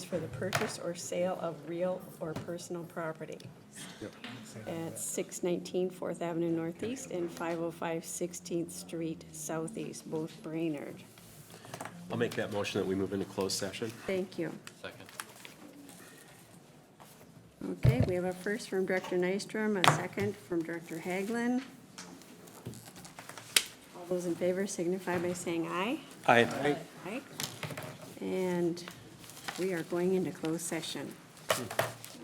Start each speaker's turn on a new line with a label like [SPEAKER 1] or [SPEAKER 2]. [SPEAKER 1] for the purchase or sale of real or personal property at 619 Fourth Avenue Northeast and 505 16th Street Southeast, both Brainerd.
[SPEAKER 2] I'll make that motion that we move into closed session.
[SPEAKER 1] Thank you.
[SPEAKER 3] Second.
[SPEAKER 1] Okay, we have a first from Director Nystrom, a second from Director Haglin. All those in favor signify by saying aye.
[SPEAKER 2] Aye.
[SPEAKER 1] Aye. And we are going into closed session.